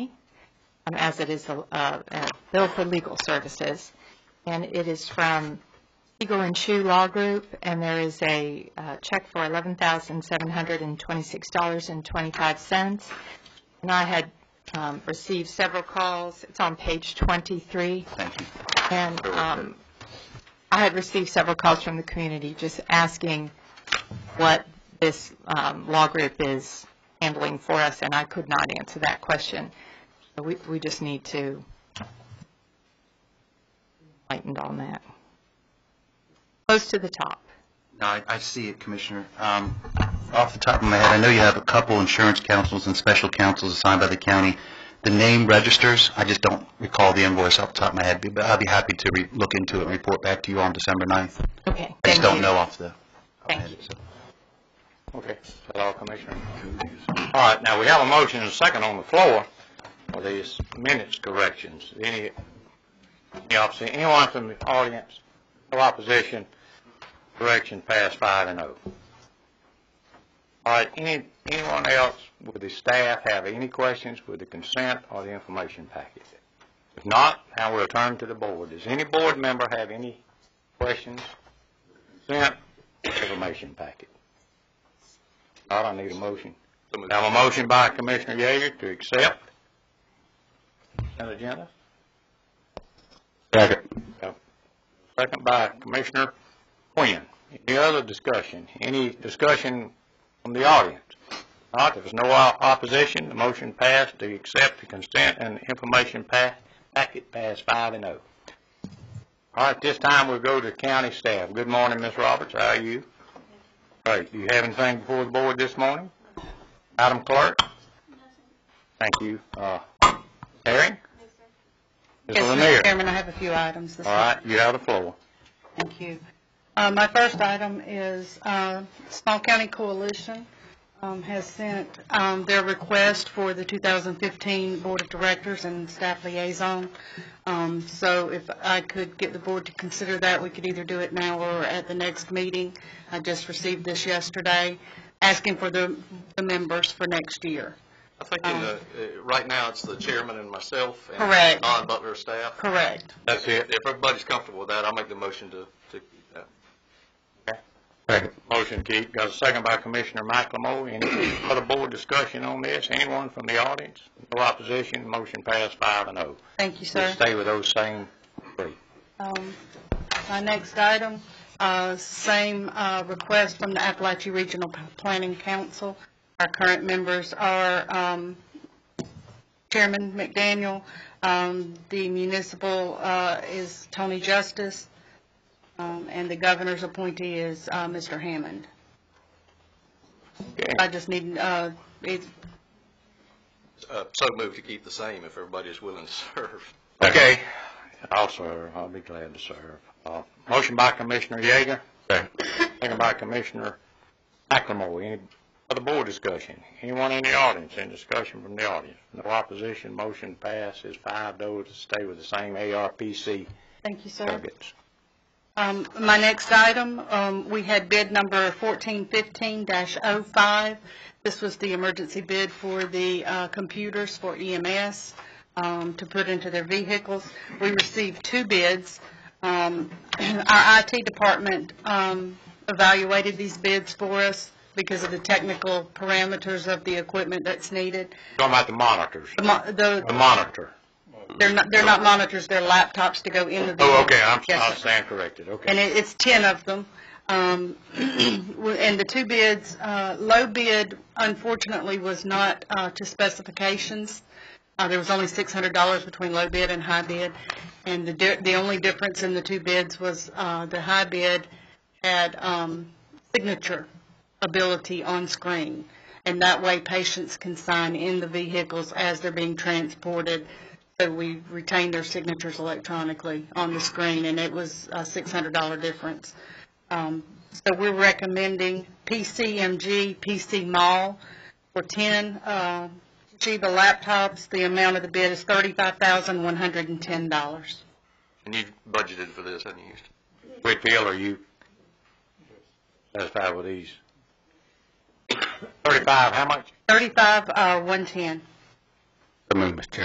um, as it is a uh, a bill for legal services. And it is from Eagle and Shoe Law Group, and there is a uh, check for $11,726.25. And I had um, received several calls. It's on page 23. Thank you. And um, I had received several calls from the community just asking what this um, law group is handling for us, and I could not answer that question. So We we just need to lighten on that. Close to the top. No, I, I see it, Commissioner. Um, off the top of my head, I know you have a couple insurance counsels and special counsels assigned by the county. The name registers, I just don't recall the invoice off the top of my head, but I'd be happy to re, look into it and report back to you on December 9th. Okay. I just thank don't you. know off the. Thank you. Okay, is that all, Commissioner? All right, now, we have a motion and a second on the floor for these minutes corrections. Any, any opposition, anyone from the audience, no opposition, correction passed five and oh. All right, any, anyone else with the staff have any questions with the consent or the information package? If not, now we'll turn to the board. Does any board member have any questions? Consent, information package? All right, I need a motion. I have a motion by Commissioner Yeager to accept consent agenda, Second. second by Commissioner Quinn. Any other discussion? Any discussion from the audience? All right, if there's no o- opposition, the motion passed to accept the consent and information pa- packet passed five and oh. All right, this time we'll go to county staff. Good morning, Ms. Roberts, how are you? Great, do you have anything before the board this morning? Madam Clerk? Thank you. Uh, Herring? Ms. Yes, Lanier. Mr. Chairman, I have a few items this All morning. right, you have the floor. Thank you. Uh, My first item is uh, Small County Coalition um, has sent um, their request for the 2015 Board of Directors and Staff Liaison. Um, So if I could get the board to consider that, we could either do it now or at the next meeting. I just received this yesterday, asking for the the members for next year. I think in the, uh, right now, it's the chairman and myself and Correct. Don Butler staff. Correct. That's If if everybody's comfortable with that, I'll make the motion to, to uh, keep that. Motion, Keith. Got a second by Commissioner McLemore. Any other board discussion on this? Anyone from the audience? No opposition. Motion passed five and oh. Thank you, We'll sir. stay with those same three. Um, My next item, uh, same uh, request from the Appalachia Regional P- Planning Council. Our current members are um, Chairman McDaniel, um, the municipal uh, is Tony Justice, um, and the governor's appointee is uh, Mr. Hammond. Okay. I just need, uh, it's Uh, So moved to keep the same if everybody is willing to serve. Okay. I'll serve. I'll be glad to serve. Uh, Motion by Commissioner Yeager. Second by Commissioner McLemore. Any other board discussion? Anyone in the audience? Any discussion from the audience? No opposition. Motion passes five to oh to stay with the same ARPC thank you, sir. targets. Um, My next item, um, we had bid number 1415-05. This was the emergency bid for the uh, computers for EMS um, to put into their vehicles. We received two bids. Um, Our IT department um, evaluated these bids for us because of the technical parameters of the equipment that's needed. Talking about the monitors. The mo- the- The monitor. They're not they're not monitors, they're laptops to go into the... Oh, okay, I'm, Yes, I sir. stand corrected, And okay. it, it's 10 of them. Um, and the two bids, uh, low bid unfortunately was not, uh, to specifications. Uh, there was only $600 between low bid and high bid. And the, di- the only difference in the two bids was, uh, the high bid had, um, signature ability on screen. And that way patients can sign in the vehicles as they're being transported. So we retain their signatures electronically on the screen and it was a $600 difference. Um, so we're recommending PCMG, PC Mall for 10, uh, see the laptops, the amount of the bid is $35,110. And you budgeted for this, haven't you, Houston? Whitfield, are you satisfied with these? Thirty-five, how much? 35, uh, 110.